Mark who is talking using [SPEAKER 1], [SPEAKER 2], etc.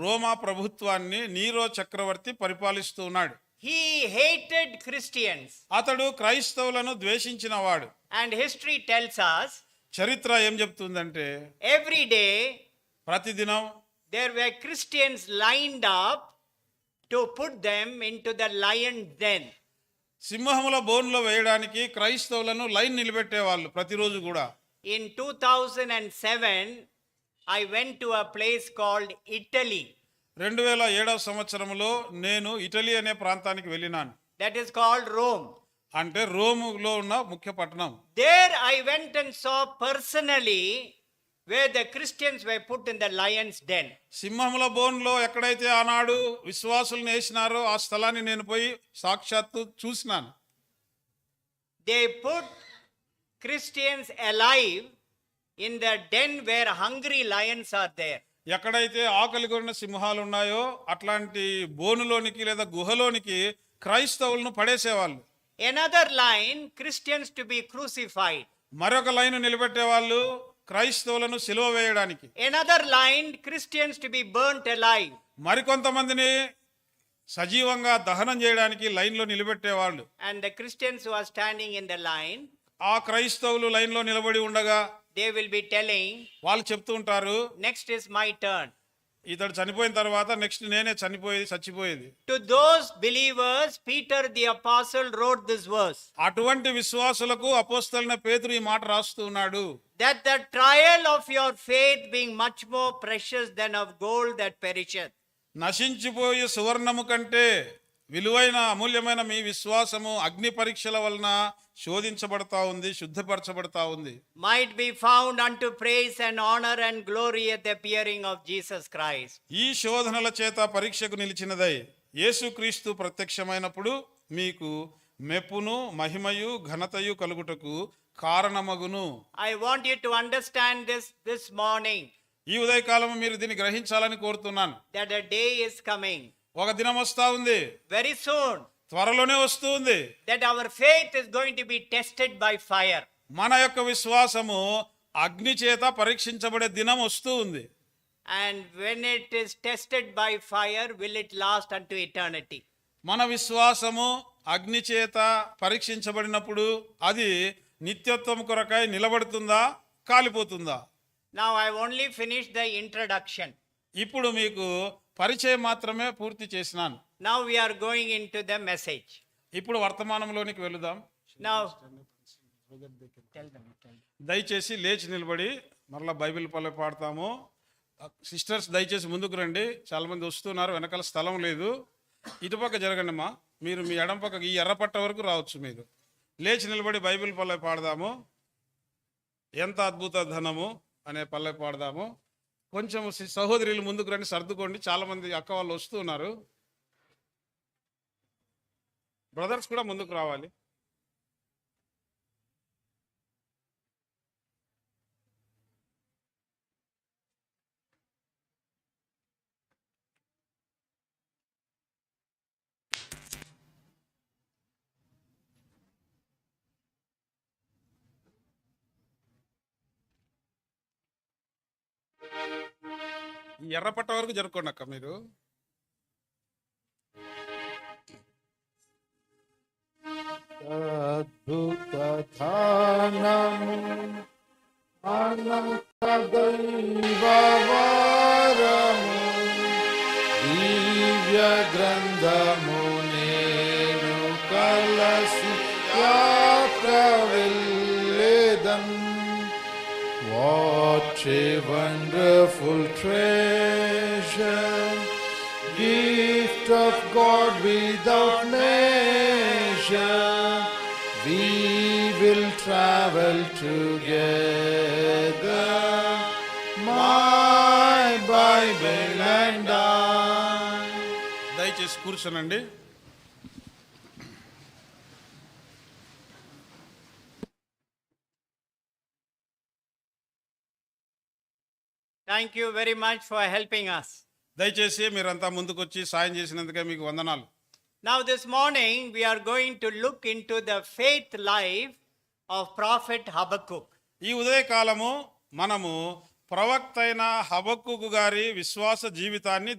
[SPEAKER 1] రోమా ప్రభుత్వాన్ని నీరో చక్రవర్తి పరిపాలిస్తూ ఉన్నాడు
[SPEAKER 2] He hated Christians.
[SPEAKER 1] అతడు క్రైస్తవులను ద్వేషించినవాడు
[SPEAKER 2] And history tells us
[SPEAKER 1] చరిత్ర ఏం చెప్తుందంటే
[SPEAKER 2] every day
[SPEAKER 1] ప్రతిదినం
[SPEAKER 2] there were Christians lined up to put them into the lion den.
[SPEAKER 1] సింహముల బోన్లో వేయడానికి క్రైస్తవులను లైన్ నిలబెట్టేవాళ్ళు ప్రతిరోజు కూడా
[SPEAKER 2] In 2007, I went to a place called Italy,
[SPEAKER 1] రెండు వేల ఏడవ సంవత్సరంలో నేను ఇటలీ అనే ప్రాంతానికి వెళ్ళినాను
[SPEAKER 2] that is called Rome.
[SPEAKER 1] అంటే రోములో ఉన్న ముఖ్య పట్టణం
[SPEAKER 2] There I went and saw personally where the Christians were put in the lion's den.
[SPEAKER 1] సింహముల బోన్లో ఎక్కడైతే ఆనాడు విశ్వాసులను వేసినారో ఆ స్థలాన్ని నేను పోయి సాక్షాత్తు చూసినాను
[SPEAKER 2] They put Christians alive in the den where hungry lions are there.
[SPEAKER 1] ఎక్కడైతే ఆకలి కొన్న సింహాలు ఉన్నాయో అట్లాంటి బోనులోనికి లేదా గుహలోనికి క్రైస్తవులను పడేసేవాళ్ళు
[SPEAKER 2] Another line Christians to be crucified.
[SPEAKER 1] మరొక లైన్ నిలబెట్టేవాళ్ళు క్రైస్తవులను సిలువ వేయడానికి
[SPEAKER 2] Another line Christians to be burnt alive.
[SPEAKER 1] మరికొంతమందిని సజీవంగా దహనం చేయడానికి లైన్లో నిలబెట్టేవాళ్ళు
[SPEAKER 2] And the Christians who are standing in the line,
[SPEAKER 1] ఆ క్రైస్తవులు లైన్లో నిలబడి ఉండగా
[SPEAKER 2] they will be telling,
[SPEAKER 1] వాళ్ళు చెప్తూ ఉంటారు
[SPEAKER 2] Next is my turn.
[SPEAKER 1] ఇతడు చనిపోయిన తర్వాత నెక్స్ట్ నేనే చనిపోయేది చచ్చిపోయేది
[SPEAKER 2] To those believers, Peter the Apostle wrote this verse
[SPEAKER 1] అటువంటి విశ్వాసులకు అపోస్తలైన పేతురు ఈ మాట రాస్తూ ఉన్నాడు
[SPEAKER 2] that the trial of your faith being much more precious than of gold that perisheth.
[SPEAKER 1] నశించిపోయే సువర్ణము కంటే విలువైన అమూల్యమైన మీ విశ్వాసము అగ్ని పరీక్షల వలన శోధించబడతా ఉంది శుద్ధపరచబడతా ఉంది
[SPEAKER 2] might be found unto praise and honor and glory at the appearing of Jesus Christ.
[SPEAKER 1] ఈ శోధనల చేత పరీక్షకు నిలిచినదై యేసుక్రీస్తు ప్రత్యక్షమైనప్పుడు మీకు మెప్పును మహిమయు ఘనతయు కలుగుటకు కారణమగును
[SPEAKER 2] I want you to understand this this morning
[SPEAKER 1] ఈ ఉదయకాలం మీరు దీన్ని గ్రహించాలని కోరుతున్నాను
[SPEAKER 2] that a day is coming
[SPEAKER 1] ఒక దినం వస్తా ఉంది
[SPEAKER 2] very soon
[SPEAKER 1] త్వరలోనే వస్తూ ఉంది
[SPEAKER 2] that our faith is going to be tested by fire.
[SPEAKER 1] మన యొక్క విశ్వాసము అగ్ని చేత పరీక్షించబడే దినం వస్తూ ఉంది
[SPEAKER 2] And when it is tested by fire, will it last unto eternity?
[SPEAKER 1] మన విశ్వాసము అగ్ని చేత పరీక్షించబడినప్పుడు అది నిత్యత్వం కొరకై నిలబడుతుందా కాలిపోతుందా
[SPEAKER 2] Now, I've only finished the introduction.
[SPEAKER 1] ఇప్పుడు మీకు పరిచయం మాత్రమే పూర్తి చేసినాను
[SPEAKER 2] Now, we are going into the message.
[SPEAKER 1] ఇప్పుడు వర్తమానంలోనికి వెళుదాం
[SPEAKER 2] Now,
[SPEAKER 1] దయచేసి లేచి నిలబడి మరలా బైబిల్ పల్లె పాడతాము సిస్టర్స్ దయచేసి ముందుకు రండి చాలా మంది వస్తున్నారు వెనకాల స్థలం లేదు ఇటుపక్క జరగండి అమ్మా మీరు మీ ఎడం పక్క ఈ ఎర్రపట్ట వరకు రావచ్చు మీరు లేచి నిలబడి బైబిల్ పల్లె పాడదాము ఎంత అద్భుత ధనము అనే పల్లె పాడదాము కొంచెం సి- సహోదరులు ముందుకు రండి సర్దుకోండి చాలా మంది అక్క వాళ్ళు వస్తున్నారు బ్రదర్స్ కూడా ముందుకు రావాలి ఈ ఎర్రపట్ట వరకు జరుపుకోండి అక్క మీరు
[SPEAKER 3] అద్భుతధానము అనంతదైవవరము దివ్య గ్రంథమునేను కలసి యాత్రవెల్లేదన్ What a wonderful treasure, gift of God without measure. We will travel together, my Bible and I.
[SPEAKER 1] దయచేసి కూర్చోనండి
[SPEAKER 2] thank you very much for helping us.
[SPEAKER 1] దయచేసి మీరంతా ముందుకొచ్చి సాయం చేసినందుకే మీకు వందనాలు
[SPEAKER 2] Now, this morning, we are going to look into the faith life of Prophet Habakkuk.
[SPEAKER 1] ఈ ఉదయకాలము మనము ప్రవక్త అయిన హబక్కు గారి విశ్వాస జీవితాన్ని